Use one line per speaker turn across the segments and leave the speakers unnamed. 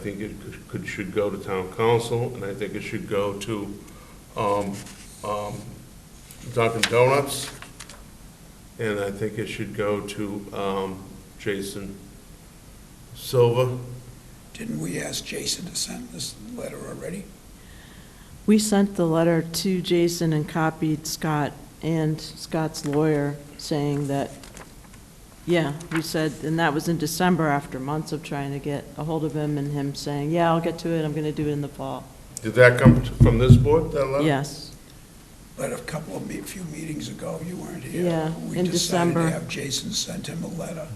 I think it could, should go to town council, and I think it should go to, um, um, Dunkin' Donuts, and I think it should go to, um, Jason Silva.
Didn't we ask Jason to send this letter already?
We sent the letter to Jason and copied Scott and Scott's lawyer saying that, yeah, we said, and that was in December after months of trying to get a hold of him and him saying, yeah, I'll get to it, I'm going to do it in the fall.
Did that come t- from this board, that letter?
Yes,
But a couple of, me- a few meetings ago, you weren't here.
Yeah, in
We decided
December.
to have Jason send him a letter.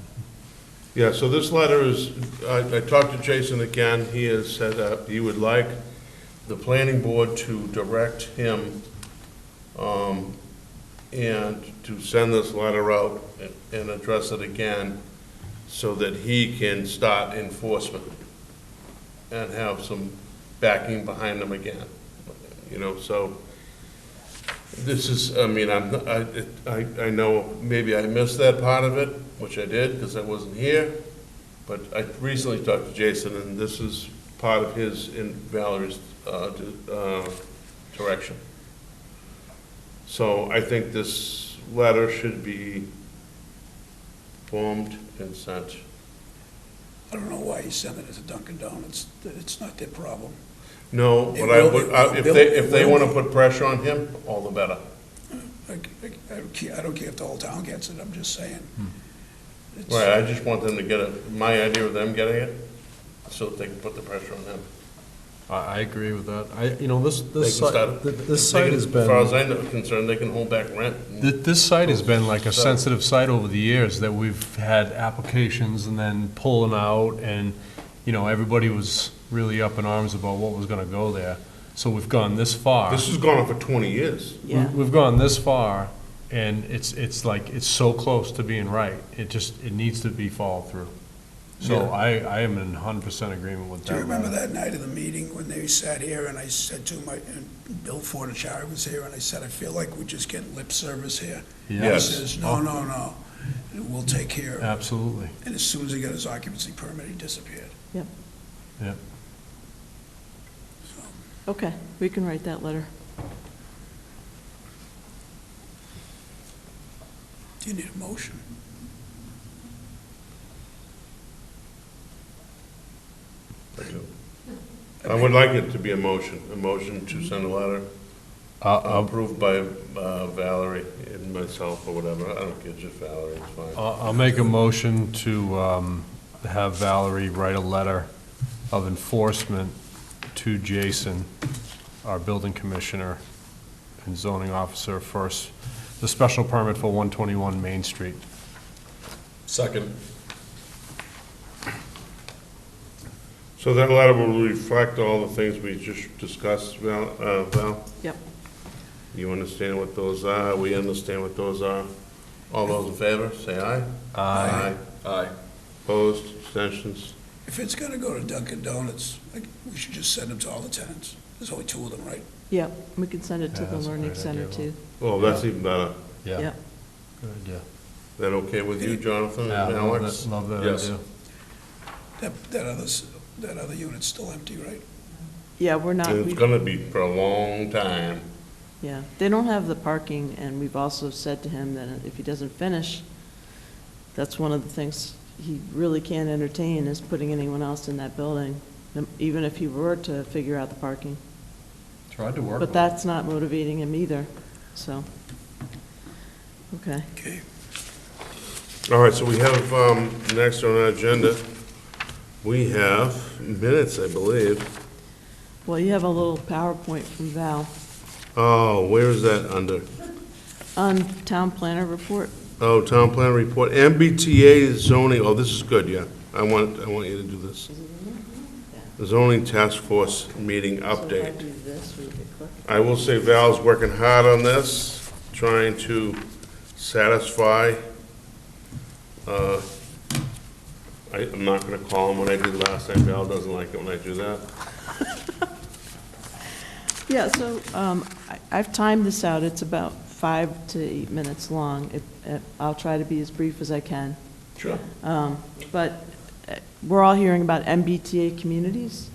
Yeah, so this letter is, I, I talked to Jason again, he has said that he would like the planning board to direct him, um, and to send this letter out and- and address it again so that he can start enforcement and have some backing behind him again, you know, so. This is, I mean, I'm, I, I, I know, maybe I missed that part of it, which I did, because I wasn't here, but I recently talked to Jason, and this is part of his and Valerie's, uh, di- uh, direction. So I think this letter should be formed and sent.
I don't know why he sent it to Dunkin' Donuts. It's not their problem.
No,
It
but I
will-
would, I-
it
if
will-
they, if they
will-
want to put pressure on him, all the better.
I I- I don't care, I don't care if the whole town gets it, I'm just saying. It's-
Right, Hmm. I just want them to get it, my idea of them getting it, so that they can put the pressure on him.
I, I agree with that. I, you know, this,
They can
this
start.
site, th- this site has
As far as
been,
I'm concerned, they can hold back rent.
th- this site has been like a
So-
sensitive site over the years, that we've had applications and then pulling out, and, you know, everybody was really up in arms about what was gonna go there. So we've gone this far.
This has gone on for 20 years.
We-
yeah.
We've gone this far, and it's, it's like, it's so close to being right. It just, it needs to be followed through. So
Yeah.
I, I am in hundred percent agreement with that.
Do you remember
letter.
that night of the meeting when they sat here and I said to my, and Bill Fortichari was here and I said, I feel like we're just getting lip service here?
Yes. Uh,
He says, no, no, no, we'll take care of it.
Absolutely.
And as soon as he got his occupancy permit, he disappeared.
Okay, we can write that letter.
Do you need a motion?
I would like it to be a motion, a motion to send a letter
I'll,
approved by uh, Valerie and myself or whatever. I don't care, just Valerie, it's fine.
Uh, I'll I'll make a motion to um, have Valerie write a letter of enforcement to Jason, our building commissioner and zoning officer, first, the special permit for 121 Main Street.
Second. So that letter will reflect all the things we just discussed, Val, uh, Val?
Yep.
You understand what those are, we understand what those are. All those in favor, say aye.
Aye.
Aye. Opposed, abstentions?
If it's gonna go to Dunkin' Donuts, like, we should just send them to all the tenants. There's only two of them, right?
Yep, we can send it to
Yeah,
the
that's a
Learning
great
Center
idea,
too.
Oh, that's even better.
Yep,
Good idea.
That okay with you, Jonathan and
Yeah, love
Alex?
that- love that
Yes.
idea.
That, that other, s- that other unit's still empty, right?
yeah, we're not,
It's
we-
gonna be for a long time.
yeah. They don't have the parking, and we've also said to him that if he doesn't finish, that's one of the things he really can't entertain, is putting anyone else in that building, um, even if he were to figure out the parking.
Tried to work
But that's not motivating him either, so. Okay,
Okay.
All right, so we have, um, next on our agenda, we have minutes, I believe.
well, you have a little PowerPoint from Val
Oh, where is that under?
on town planner report.
Oh, town plan report, MBTA zoning, oh, this is good, yeah. I want, I want you to do this. Zoning task force meeting update.
So if I do this, we could click.
I will say Val's working hard on this, trying to satisfy, uh, I, I'm not gonna call him what I did last time, Val doesn't like it when I do that.
Yeah, so um, I- I've timed this out, it's about five to eight minutes long. It- it- I'll try to be as brief as I can.
Sure.
Um, But uh, we're all hearing about MBTA communities,